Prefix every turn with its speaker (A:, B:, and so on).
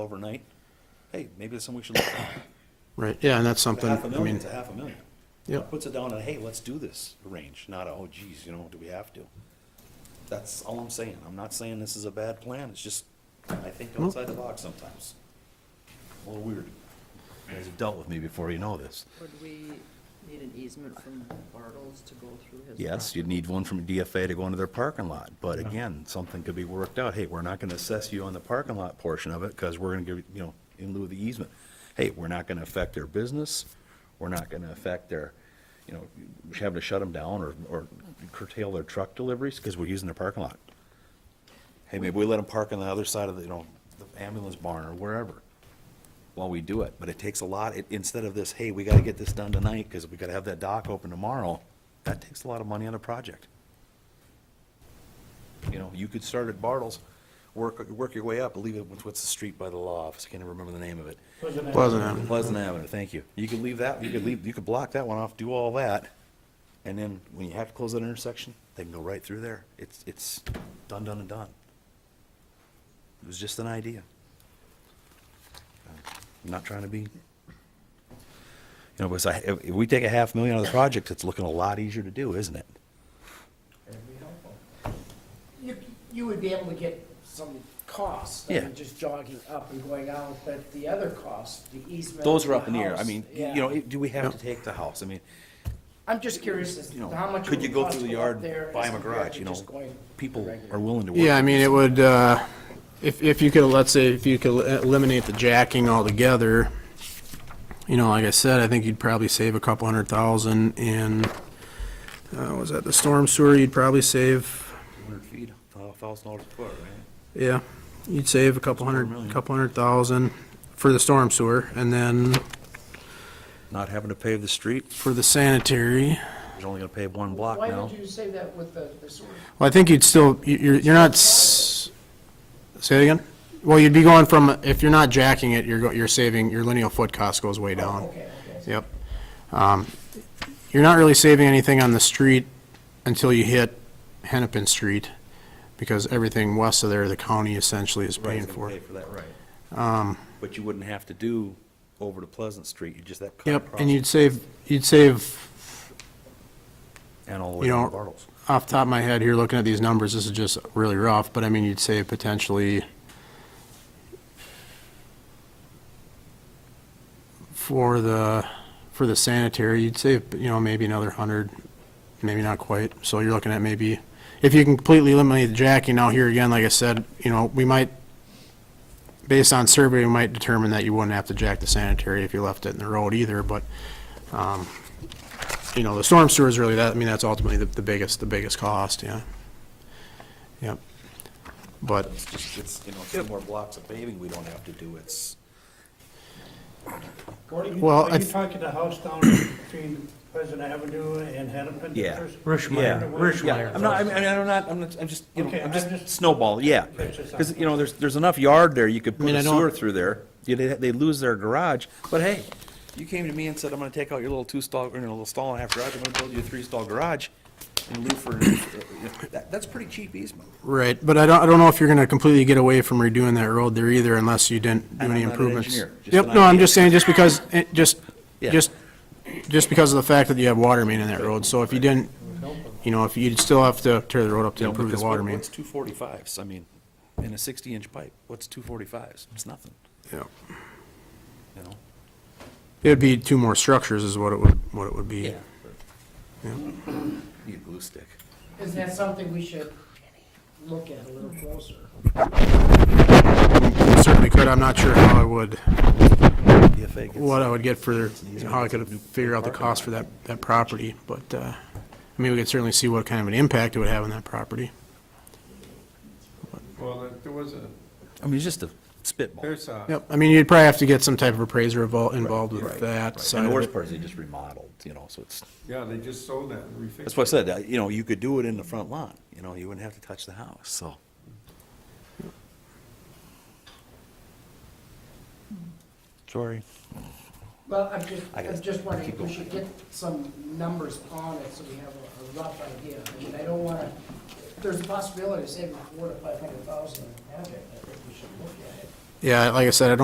A: overnight, hey, maybe that's something we should look at.
B: Right, yeah, and that's
A: A
B: something,
A: Half a
B: I
A: million
B: mean,
A: to half a million.
B: yeah,
A: Puts it down on, hey, let's do this range, not, a, oh geez, you know, do we have to? That's all I'm saying. I'm not saying this is a bad plan. It's just, I think outside the box sometimes. A little weird.
C: You guys have dealt with me before, you know this.
D: Would we need an easement from Bartles to go through his?
C: Yes, you'd need one from DFA to go into their parking lot, but again, something could be worked out. Hey, we're not gonna assess you on the parking lot portion of it, because we're gonna give, you- you know, in lieu of the easement. Hey, we're not gonna affect their business, we're not gonna affect their, you know, having to shut them down or, or curtail their truck deliveries, because we're using their parking lot. Hey, maybe we let them park on the other side of the, you know, the ambulance barn or wherever while we do it, but it takes a lot, it, instead of this, hey, we gotta get this done tonight, because we gotta have that dock open tomorrow, that takes a lot of money on the project. You know, you could start at Bartles, work, work your way up, leave it with, what's the street by the law office, can't even remember the name of it.
B: Pleasant Avenue.
C: Pleasant Avenue, thank you. You could leave that, you could leave, you could block that one off, do all that, and then when you have to close that intersection, they can go right through there. It's, it's done, done, and done. It was just an idea. I'm not trying to be, you know, because I, if if we take a half million out of the project, it's looking a lot easier to do, isn't it?
E: You, you would be able to get some costs, I
C: Yeah.
E: mean, just jogging up and going out, but the other costs, the easement.
C: Those are up in the air. I
E: house,
C: mean, you
E: yeah.
C: know, do we have to take the house? I mean,
E: I'm just curious as
C: you
E: to how
C: know,
E: much. it
C: could you
E: would
C: go
E: cost
C: through
E: to
C: the
E: go up
C: yard,
E: there
C: buy
E: as
C: them a
E: compared
C: garage,
E: to
C: you know?
E: just going
C: People
E: regular.
C: are willing to work.
B: yeah, I mean,
C: with us.
B: it would, uh, if, if you could, let's say, if you could eliminate the jacking altogether, you know, like I said, I think you'd probably save a couple hundred thousand in, uh, was that the storm sewer, you'd probably save,
C: 100 feet, $1,000 dollars a foot, right?
B: yeah, you'd save a couple
C: million.
B: hundred, couple hundred thousand for the storm sewer, and then
C: Not having to pave the street,
B: for the sanitary,
C: you're only gonna pave one block
E: Why
C: now.
E: would you say that with the, the sewer?
B: Well, I think you'd still, you- you're, you're not, s- say it again? Well, you'd be going from, if you're not jacking it, you're, go- you're saving, your lineal foot cost goes way down.
E: Okay, okay.
B: Yep. Um, You're not really saving anything on the street until you hit Hennepin Street, because everything west of there, the county essentially is
C: Right,
B: paying
C: it's gonna
B: for.
C: Pay
B: it. Um,
C: for that, right. But you wouldn't have to do over to Pleasant Street, you just that cut
B: Yep,
C: across.
B: and you'd save, you'd save,
C: And all the way
B: you
C: down to
B: know,
C: Bartles.
B: off the top of my head here, looking at these numbers, this is just really rough, but I mean, you'd save potentially for the, for the sanitary, you'd save, you know, maybe another hundred, maybe not quite. So you're looking at maybe, if you can completely eliminate the jacking now here again, like I said, you know, we might, based on survey, we might determine that you wouldn't have to jack the sanitary if you left it in the road either, but you know, the storm sewer is really that, I mean, that's ultimately the, the biggest, the biggest cost, yeah. Yep. But,
C: It's just, it's, you know, two more blocks of paving we don't have to do, it's.
F: Gordon, you-
B: Well, I
F: are you
B: th-
F: talking the house down between Pleasant Avenue and Hennepin?
C: Yeah.
F: There's-
C: Yeah, yeah. I'm not, I mean, I'm not, I'm not, I'm just, you know,
F: Okay,
C: I'm
F: I'm
C: just
F: just-
C: snowball, yeah.
F: That's just-
C: Because, you know, there's, there's enough yard there, you could put
B: mean,
C: a
B: I don't-
C: sewer through there. You- They, they lose their garage, but hey, you came to me and said, I'm gonna take out your little two-stall, or your little stall and a half garage, I'm gonna build you a three-stall garage in lieu for, uh, that, that's pretty cheap easement.
B: right, but I don't, I don't know if you're gonna completely get away from redoing that road there either unless you didn't do
C: And
B: any
C: I'm not an
B: improvements.
C: engineer, just
B: Yep,
C: an
B: no, I'm
C: idea.
B: just saying, just because, it, just,
C: Yeah.
B: just, just because of the fact that you have water main in that road, so if you didn't, you know, if you'd still have to tear the road up to
C: You know,
B: improve the
C: because
B: water
C: what-
B: main.
C: What's two forty-fives? I mean, in a sixty-inch pipe, what's two forty-fives? It's nothing,
B: Yep.
C: you know?
B: It'd be two more structures is what it would, what it would be.
C: Need a glue stick.
E: Is that something we should look at a little closer?
B: Certainly could, I'm not sure how I would.
C: DFA gets-
B: what I would get for, you know, how I could figure out the cost for that, that property, but, uh, I mean, we could certainly see what kind of an impact it would have on that property.
G: Well, there was a,
C: I mean, it's just a spitball.
G: there's a,
B: Yep, I mean, you'd probably have to get some type of appraiser evol- involved with
G: right,
B: that
C: And
B: side
C: the
B: of
C: worst
B: it.
C: part is they just remodeled, you know, so it's,
G: yeah, they just sold that and refixed it.
C: that's what I said, uh, you know, you could do it in the front lawn, you know, you wouldn't have to touch the house, so. Sorry.
E: Well, I'm just,
C: I gotta
E: I'm just wondering
C: keep
E: if we
C: going.
E: should get some numbers on it so we have a- a rough idea. I mean, I don't wanna, there's a possibility of saving four to five hundred thousand in the project, I think we should look at it.
B: Yeah, like I said, I don't